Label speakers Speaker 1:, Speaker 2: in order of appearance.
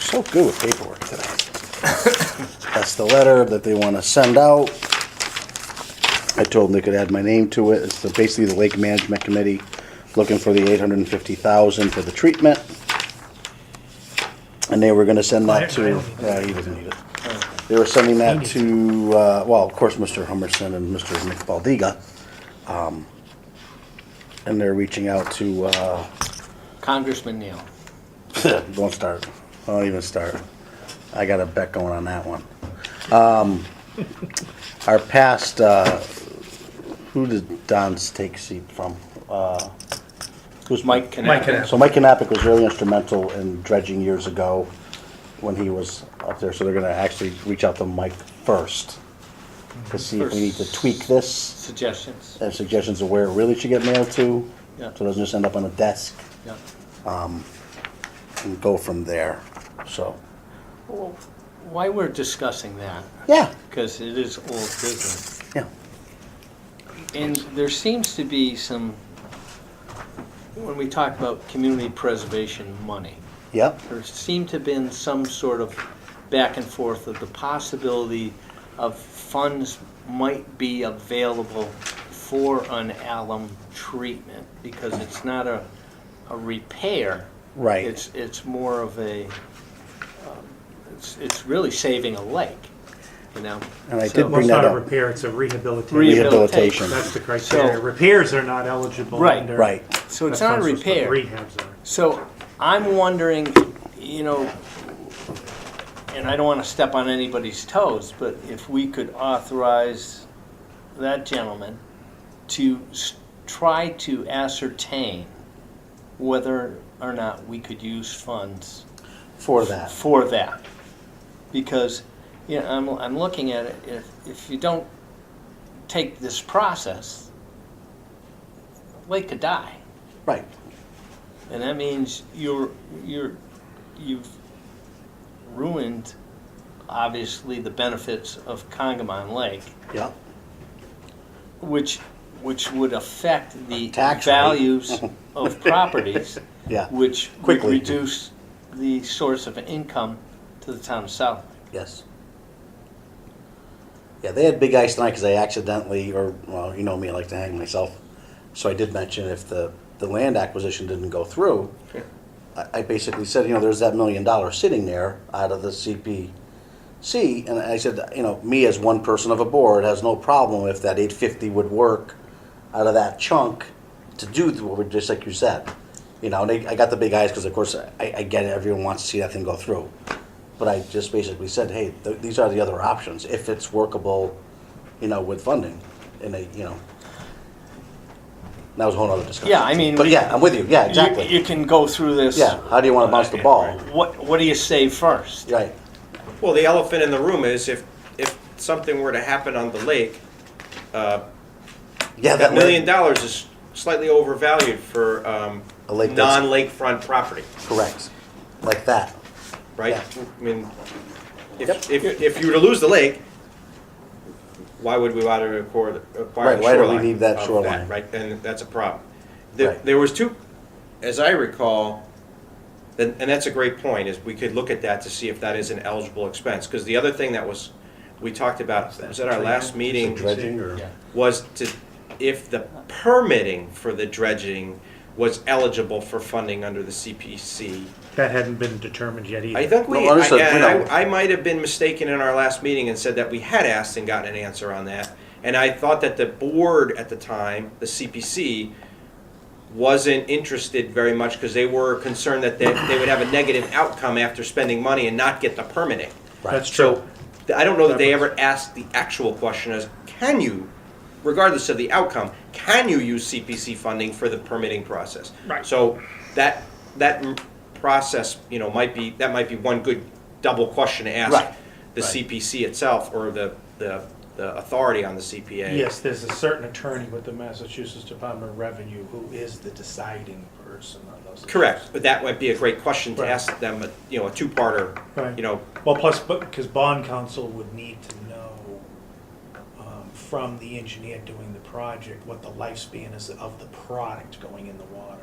Speaker 1: so good with paperwork today. That's the letter that they want to send out. I told them they could add my name to it. It's the- basically the Lake Management Committee looking for the eight hundred and fifty thousand for the treatment. And they were gonna send that
Speaker 2: I- I
Speaker 1: to,
Speaker 2: don't need
Speaker 1: yeah, he doesn't need it. They were sending that to, uh, well, of course, Mr. Hummerson and Mr. McBaldiga. Um, And they're reaching out to, uh,
Speaker 3: Congressman Neal.
Speaker 1: Don't start. Don't even start. I got a bet going on that one. Um, our past, uh, who did Don's take seat from? Uh, who's
Speaker 3: Mike
Speaker 2: Mike
Speaker 3: Knapp.
Speaker 2: Knapp.
Speaker 1: So Mike Knappich was really instrumental in dredging years ago when he was up there. So they're going to actually reach out to Mike first to see if we need to tweak this
Speaker 3: Suggestions,
Speaker 1: and suggestions of where it really should get mailed to,
Speaker 3: Yeah.
Speaker 1: so it doesn't just end up on a desk
Speaker 3: yeah.
Speaker 1: and go from there. So.
Speaker 3: Well, Why we're discussing that,
Speaker 1: Yeah,
Speaker 3: because it is old business,
Speaker 1: yeah.
Speaker 3: and there seems to be some, when we talk about community preservation money,
Speaker 1: Yep,
Speaker 3: there seemed to have been some sort of back and forth of the possibility of funds might be available for an alum treatment, because it's not a, a repair.
Speaker 1: Right.
Speaker 3: It's, it's more of a, um, it's, it's really saving a lake, you know?
Speaker 1: and I
Speaker 3: So-
Speaker 1: did
Speaker 2: Well,
Speaker 1: bring
Speaker 2: it's
Speaker 1: that
Speaker 2: not a
Speaker 1: up.
Speaker 2: repair, it's a rehabilitation.
Speaker 3: Rehabil-
Speaker 1: Rehabilitation,
Speaker 2: That's the criteria.
Speaker 3: So-
Speaker 2: Repairs are not eligible
Speaker 3: Right.
Speaker 2: under.
Speaker 1: right.
Speaker 3: So
Speaker 2: That's
Speaker 3: it's not a
Speaker 2: what I'm supposed to-
Speaker 3: repair.
Speaker 2: Rehabs are.
Speaker 3: So I'm wondering, you know, and I don't want to step on anybody's toes, but if we could authorize that gentleman to s- try to ascertain whether or not we could use funds
Speaker 1: For that.
Speaker 3: for that. Because, you know, I'm, I'm looking at it, if, if you don't take this process, Lake could die.
Speaker 1: Right,
Speaker 3: And that means you're you're you've ruined obviously the benefits of Congamon Lake,
Speaker 1: yeah,
Speaker 3: which which would affect the
Speaker 1: Tax rate.
Speaker 3: values of properties,
Speaker 1: yeah,
Speaker 3: which
Speaker 1: Quickly.
Speaker 3: would reduce the source of income to the town of South.
Speaker 1: yes. Yeah, they had big ice tonight because I accidentally, or, well, you know me, I like to hang myself. So I did mention if the, the land acquisition didn't go through,
Speaker 3: Sure.
Speaker 1: I, I basically said, you know, there's that million dollars sitting there out of the CPC. And I said, you know, me as one person of a board has no problem if that eight fifty would work out of that chunk to do the- what we, just like you said. You know, and they, I got the big eyes because of course I, I get it, everyone wants to see that thing go through. But I just basically said, hey, th- these are the other options if it's workable, you know, with funding. And they, you know, that was a whole other discussion.
Speaker 3: Yeah, I mean,
Speaker 1: But
Speaker 3: we-
Speaker 1: yeah, I'm with you. Yeah,
Speaker 3: You-
Speaker 1: exactly.
Speaker 3: You, can go through this.
Speaker 1: Yeah, how do you want to bounce the ball?
Speaker 3: What what do you say first?
Speaker 1: Right,
Speaker 4: Well, the elephant in the room is if, if something were to happen on the lake, uh,
Speaker 1: yeah,
Speaker 4: that
Speaker 1: that
Speaker 4: million
Speaker 1: way,
Speaker 4: dollars is slightly overvalued for um,
Speaker 1: A lake that's-
Speaker 4: non-lakefront property,
Speaker 1: correct, like that,
Speaker 4: right?
Speaker 1: Yeah.
Speaker 4: I mean,
Speaker 1: Yep.
Speaker 4: if, if, if you were to lose the lake, why would we want to acquire, acquire
Speaker 1: Right,
Speaker 4: the shoreline?
Speaker 1: why do we need that
Speaker 4: of
Speaker 1: shoreline?
Speaker 4: Right, and that's a problem. There,
Speaker 1: Right.
Speaker 4: there was two, as I recall, and, and that's a great point, is we could look at that to see if that is an eligible expense. Because the other thing that was, we talked about, was at our last meeting,
Speaker 1: dredging or,
Speaker 3: Yeah.
Speaker 4: was to, if the permitting for the dredging was eligible for funding under the CPC.
Speaker 2: That hadn't been determined yet either.
Speaker 4: I think we,
Speaker 1: No,
Speaker 4: I,
Speaker 1: understood,
Speaker 4: and
Speaker 1: we know.
Speaker 4: I, I might have been mistaken in our last meeting and said that we had asked and gotten an answer on that. And I thought that the board at the time, the CPC, wasn't interested very much because they were concerned that they, they would have a negative outcome after spending money and not get the permitting.
Speaker 2: That's true.
Speaker 4: So th- I don't know that they ever asked the actual question as, can you, regardless of the outcome, can you use CPC funding for the permitting process?
Speaker 2: Right.
Speaker 4: So that, that m- process, you know, might be, that might be one good double question to ask.
Speaker 1: Right,
Speaker 4: The
Speaker 1: right.
Speaker 4: CPC itself or the, the, the authority on the CPA.
Speaker 5: Yes, there's a certain attorney with the Massachusetts Department of Revenue who is the deciding person on those. issues.
Speaker 4: Correct, but that might be a great question to
Speaker 5: Right.
Speaker 4: ask them, uh, you know, a two-parter,
Speaker 5: Right.
Speaker 4: you know,
Speaker 5: Well, plus, because bond counsel would need to know um, from the engineer doing the project what the lifespan is of the product going in the water.